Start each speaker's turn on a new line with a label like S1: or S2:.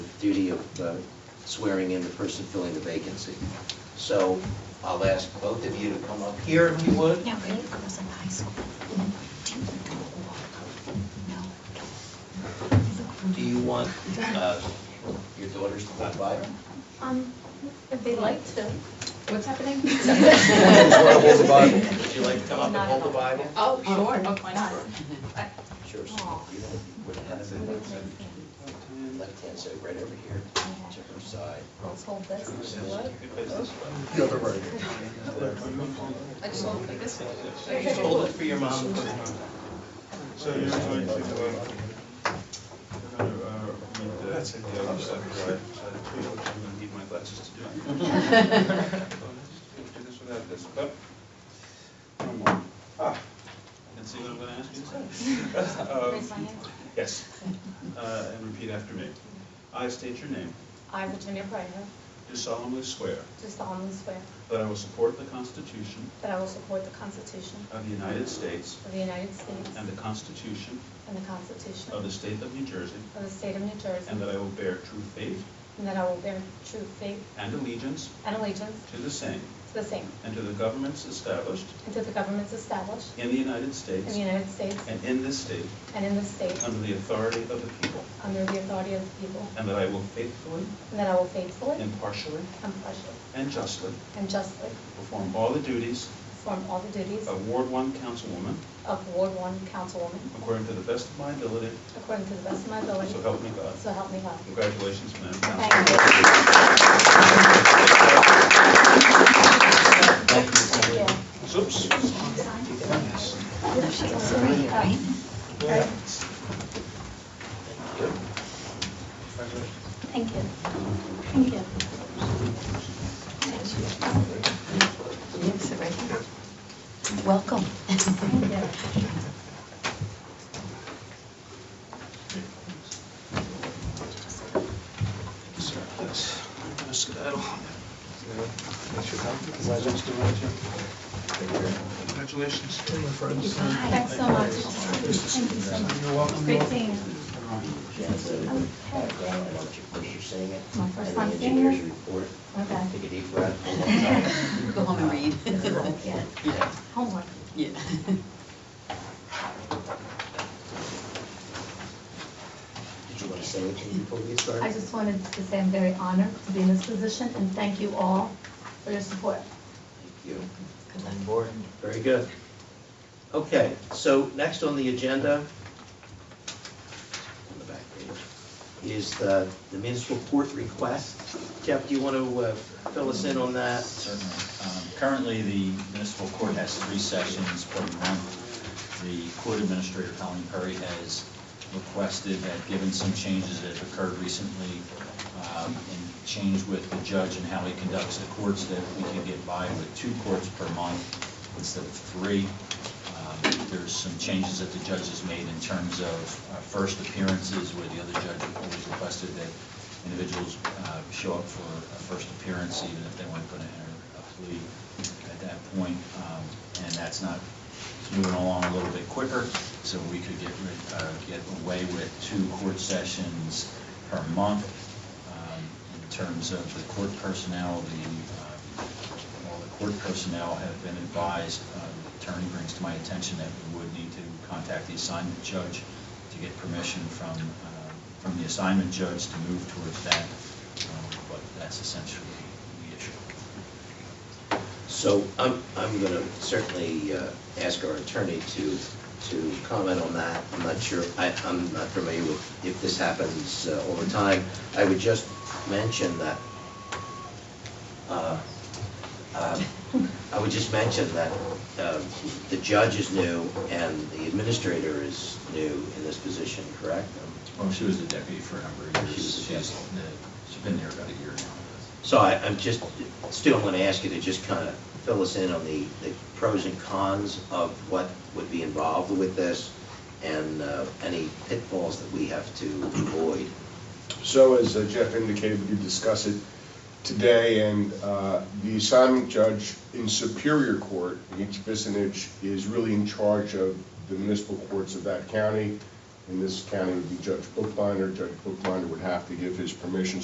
S1: duty of uh, swearing in the person filling the vacancy. So I'll ask both of you to come up here if you would.
S2: No, it goes in high school. Didn't go walk. No. Look for
S1: Do you want uh, your daughters to come by?
S3: Um, if they like to. What's happening?
S1: Hold the Bible. Would you like to come up and hold the Bible?
S3: Oh, sure, oh, why not?
S1: Sure. so you don't- with the hands in the- Left hand side, right over here, to her side.
S3: Let's hold this.
S1: The other way.
S3: I just want to this
S1: Just hold it for your mom.
S4: So you're going to, uh, going to, uh, read the, the other side, right? So I'm gonna need my glasses to do it. Do this without this, but, come on. Ah, I can see what I'm gonna ask you to say.
S3: Raise my
S4: Um,
S3: hand.
S4: Yes, uh, and repeat after me. I state your name,
S3: I, Virginia Pryor,
S4: do solemnly swear
S3: do solemnly swear
S4: that I will support the Constitution
S3: that I will support the Constitution
S4: of the United States
S3: of the United States
S4: and the Constitution
S3: and the Constitution
S4: of the State of New Jersey,
S3: of the State of New Jersey,
S4: and that I will bear true faith
S3: and that I will bear true faith
S4: and allegiance
S3: and allegiance
S4: to the same
S3: to the same,
S4: and to the governments established
S3: and to the governments established
S4: in the United
S3: in
S4: States
S3: the United States
S4: and in this state
S3: and in this state,
S4: under the authority of the people,
S3: under the authority of the people,
S4: and that I will faithfully,
S3: and that I will faithfully,
S4: impartially,
S3: impartially,
S4: and justly
S3: and justly
S4: perform all the duties
S3: perform all the duties
S4: of Ward One councilwoman
S3: of Ward One Councilwoman
S4: according to the best of my ability,
S3: according to the best of my ability,
S4: so help me God.
S3: so help me God.
S4: Congratulations, Madam Councilwoman.
S3: Thank you. Thank you.
S4: Oops.
S2: Thank you. Thank you. Yes, right here. Welcome.
S4: Sorry, yes. I'm gonna skedaddle. Congratulations.
S3: Thanks so much. Thank you so much. Great seeing you.
S1: Background, I want uh, you, of course, you're saying it.
S3: My first
S1: And
S3: time
S1: the
S3: seeing it.
S1: engineer's report.
S3: Okay.
S1: Take a deep breath.
S5: Go home and read.
S3: Yeah.
S5: Yeah.
S3: Homework.
S5: Yeah.
S1: Did you want to say anything before we get started?
S2: I just wanted to say I'm very honored to be in this position and thank you all for your support.
S1: Thank you. On board. Very good. Okay, so next on the agenda, on the back page, is the the municipal court request. Jeff, do you want to uh, fill us in on that?
S6: Certainly. Um, Currently, the municipal court has three sessions per month. The court administrator, Colleen Perry, has requested that, given some changes that have occurred recently, um, and change with the judge and how he conducts the courts, that we can get by with two courts per month instead of three. Um, There's some changes that the judge has made in terms of uh, first appearances, where the other judge always requested that individuals uh, show up for a first appearance, even if they weren't going to enter a plea at that point. Um, And that's not, it's moving along a little bit quicker, so we could get, rid- uh, get away with two court sessions per month um, in terms of the court personnel, the, um, all the court personnel have been advised, uh, the attorney brings to my attention that we would need to contact the assignment judge to get permission from, uh, from the assignment judge to move towards that, Um, but that's essentially the issue.
S1: So I'm, I'm going to certainly uh, ask our attorney to, to comment on that. I'm not sure, I, I'm not familiar with if this happens uh, all the time. I would just mention that, uh, um, I would just mention that uh, the judge is new and the administrator is new in this position, correct?
S6: Well, Oh, she was the deputy for a number of years.
S1: She was the
S6: She's,
S1: deputy.
S6: the- she's been there about a year now.
S1: So I, I'm just, still I'm going to ask you to just kind of fill us in on the, the pros and cons of what would be involved with this and uh, any pitfalls that we have to avoid.
S7: So as uh, Jeff indicated, we did discuss it today, and uh, the assignment judge in Superior Court, in each vicinage, is really in charge of the municipal courts of that county. in this county would be Judge Bookbinder. Judge Bookbinder would have to give his permission